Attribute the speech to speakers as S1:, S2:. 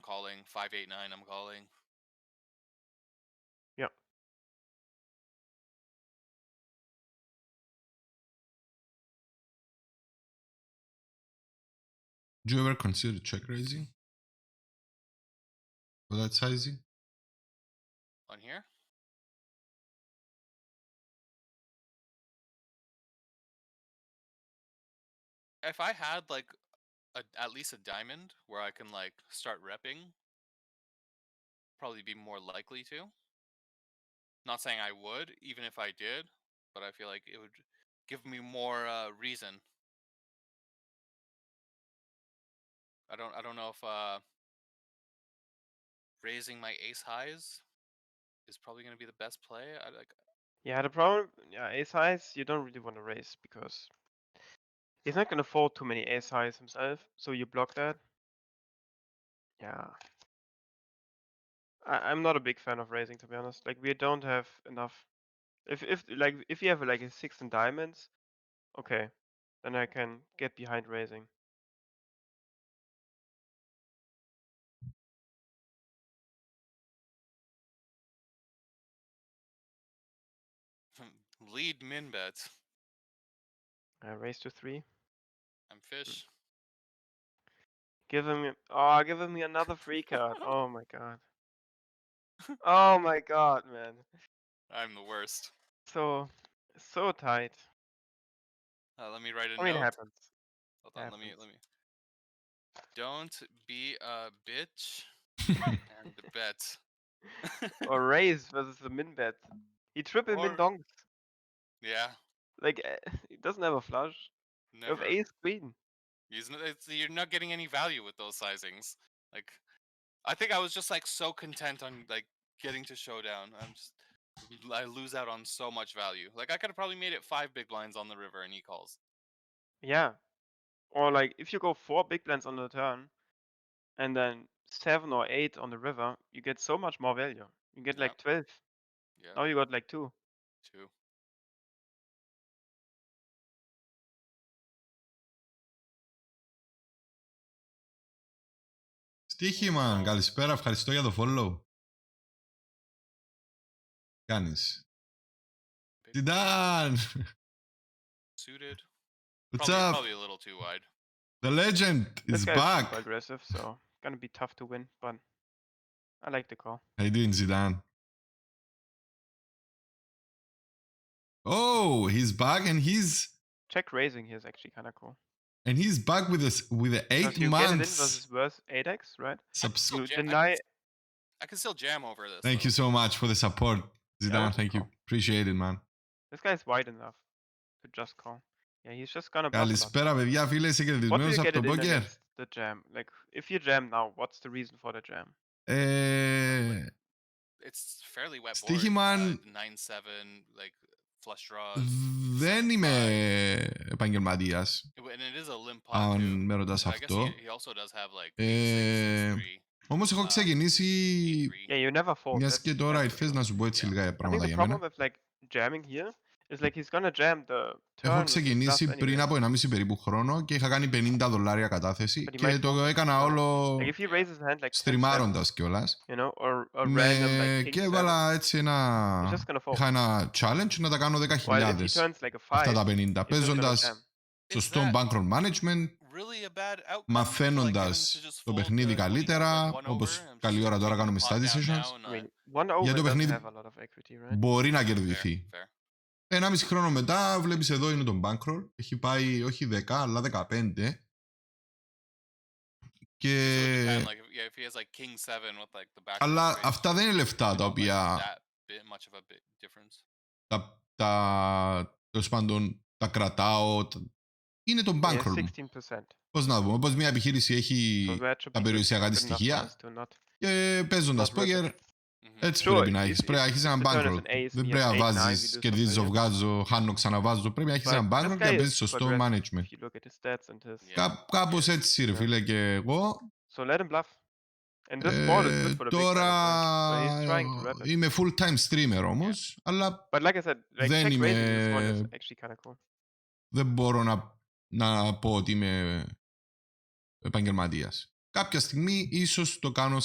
S1: calling. Five eight nine. I'm calling.
S2: Yep.
S3: Do you ever consider check raising? Or that sizing?
S1: On here. If I had like a, at least a diamond where I can like start repping, probably be more likely to. Not saying I would, even if I did, but I feel like it would give me more uh, reason. I don't. I don't know if uh, raising my ace highs is probably going to be the best play. I like.
S2: Yeah, the problem, yeah, ace highs, you don't really want to raise because he's not gonna fold too many ace highs himself. So you block that. Yeah. I, I'm not a big fan of raising to be honest. Like we don't have enough. If if like if you have like a six and diamonds, okay, then I can get behind raising.
S1: Lead min bets.
S2: Uh, raise to three.
S1: I'm fish.
S2: Give him oh, give him another free card. Oh my god. Oh my god, man.
S1: I'm the worst.
S2: So so tight.
S1: Uh, let me write a
S2: I mean, it
S1: note.
S2: happens.
S1: Hold on. Let me.
S2: happens.
S1: Let me. Don't be a bitch and bet.
S2: Or raise versus the min bet. He triple min
S1: Or-
S2: dongs.
S1: Yeah.
S2: Like eh, he doesn't have a flush. You
S1: Never.
S2: have ace queen.
S1: He's n- it's, you're not getting any value with those sizings. Like, I think I was just like so content on like getting to showdown. I'm just l- I lose out on so much value. Like I could have probably made it five big blinds on the river and he calls.
S2: Yeah. Or like if you go four big blinds on the turn, and then seven or eight on the river, you get so much more value. You get
S1: Yeah.
S2: like twelve.
S1: Yeah,
S2: Now you got like two.
S1: two.
S3: Στοίχημαν, καλησπέρα, ευχαριστώ για το follow. Κάνεις.
S1: Big
S3: Τιντάν!
S1: suited.
S3: What's
S1: Probably,
S3: up?
S1: probably a little too wide.
S3: The legend
S2: This
S3: is
S2: guy's
S3: back.
S2: super aggressive, so gonna be tough to win, but I like the call.
S3: How you doing, Zidane? Oh, he's back and he's
S2: Check raising here is actually kind of cool.
S3: and he's back with us with the
S2: 'Cause
S3: eight
S2: you get it in
S3: months
S2: versus worth 8x, right?
S3: subs.
S1: Still
S2: You
S1: jam- I can
S2: deny.
S1: s- I can still jam over this.
S3: Thank
S1: though.
S3: you so much for the support, Zidane.
S2: that's
S3: Thank you, appreciate it, man.
S2: This guy's wide enough to just call. Yeah, he's just gonna. bluff a lot.
S3: Καλησπέρα, παιδιά, φίλε, είσαι
S2: What do
S3: κερδισμένος
S2: you
S3: από
S2: get
S3: το
S2: it in
S3: Poker.
S2: against the jam? Like, if you jam now, what's the reason for the jam?
S3: Ε,
S1: It's fairly wet.
S3: Στοίχημαν-
S1: board, uh, nine seven like flush draws.
S3: δεν είμαι επαγγελματίας,
S1: It- And it is a limp pot
S3: αν
S1: too.
S3: με ρωτάς
S1: So I guess he,
S3: αυτό.
S1: he also does have like
S3: Ε,
S1: six, six, three,
S3: Όμως έχω
S1: uh,
S3: ξεκινήσει,
S1: three.
S2: Yeah, you never fold.
S3: μιας
S2: Yes,
S3: και τώρα ήρθες να σου πω έτσι
S1: Yeah.
S3: λίγα
S2: I think
S3: πράγματα
S2: the
S3: για μένα.
S2: problem with like jamming here is like he's gonna jam the turn.
S3: Έχω
S2: with his bluff
S3: ξεκινήσει
S2: anyway.
S3: πριν από 1,5 περίπου χρόνο και είχα κάνει 50 δολάρια κατάθεση
S2: But you
S3: και
S2: might
S3: το έκανα
S2: now.
S3: όλο
S2: Like if he raises hand like 10, 7,
S3: στριμάροντας κιόλα.
S2: you know, or a random
S3: Ναι,
S2: like king
S3: και
S2: seven,
S3: έβαλα έτσι
S2: he's
S3: ένα...
S2: just gonna fold.
S3: Είχα ένα challenge να τα κάνω
S2: While if
S3: 10.000
S2: he turns like a
S3: αυτά τα
S2: five,
S3: 50,
S2: he's just gonna
S3: παίζοντας
S2: jam.
S1: Is
S3: σωστό
S1: that
S3: bankroll management,
S1: really a bad outcome?
S3: μαθαίνοντας το παιχνίδι καλύτερα, όπως καλή ώρα τώρα κάνουμε στα
S2: I
S3: decisions,
S2: mean, one over
S3: το
S2: doesn't
S3: παιχνίδι-
S2: have a lot of equity, right?
S3: μπορεί
S1: Ναι.
S3: να κερδιθεί. 1,5 χρόνο μετά βλέπεις εδώ είναι το bankroll, έχει πάει όχι 10 αλλά 15 και... Ε, Αλλά αυτά δεν είναι λεφτά τα οποία τα, τα, τέλος πάντων, τα κρατάω. τα- Είναι το
S2: Yeah,
S3: bankroll μου.
S2: 16%.
S3: Πώς να το πούμε, πώς μια επιχείρηση έχει
S2: So that should be
S3: τα
S2: good-
S3: περιουσιακά
S2: good
S3: της
S2: enough for
S3: στοιχεία
S2: us to not-
S3: και παίζοντας
S2: not worth
S3: poker,
S2: it.
S1: Mm-hmm.
S3: έτσι
S2: Sure,
S3: πρέπει να
S2: if-
S3: έχεις.
S2: if-
S3: Πρέπει να έχεις
S2: if
S3: ένα
S2: the turn is
S3: bankroll.
S2: an ace
S3: Δεν
S2: and
S3: πρέπει
S2: he
S3: να
S2: has eight, nine, we
S3: βάζεις,
S2: lose
S3: κερδίζω,
S2: value.
S3: βγάζω, χάνω, ξαναβάζω. Πρέπει να έχεις
S2: But
S3: ένα
S2: this
S3: bankroll και
S2: guy
S3: να
S2: is
S3: παίζεις
S2: super
S3: σωστό
S2: aggressive
S3: management.
S2: If you look at his stats and his
S1: Yeah.
S3: Κά, κάπως
S1: Yeah.
S3: έτσι ρε φίλε και εγώ.
S2: So let him bluff. And this board is good
S3: Ε,
S2: for the big blind
S3: τώρα
S2: as well. So he's trying to wrap it.
S3: είμαι full time streamer όμως, αλλά
S2: But like I said, like
S3: δεν
S2: check raising this one is
S3: είμαι-
S2: actually kind of cool.
S3: δεν μπορώ να, να πω ότι είμαι επαγγελματίας. Κάποια στιγμή ίσως το κάνω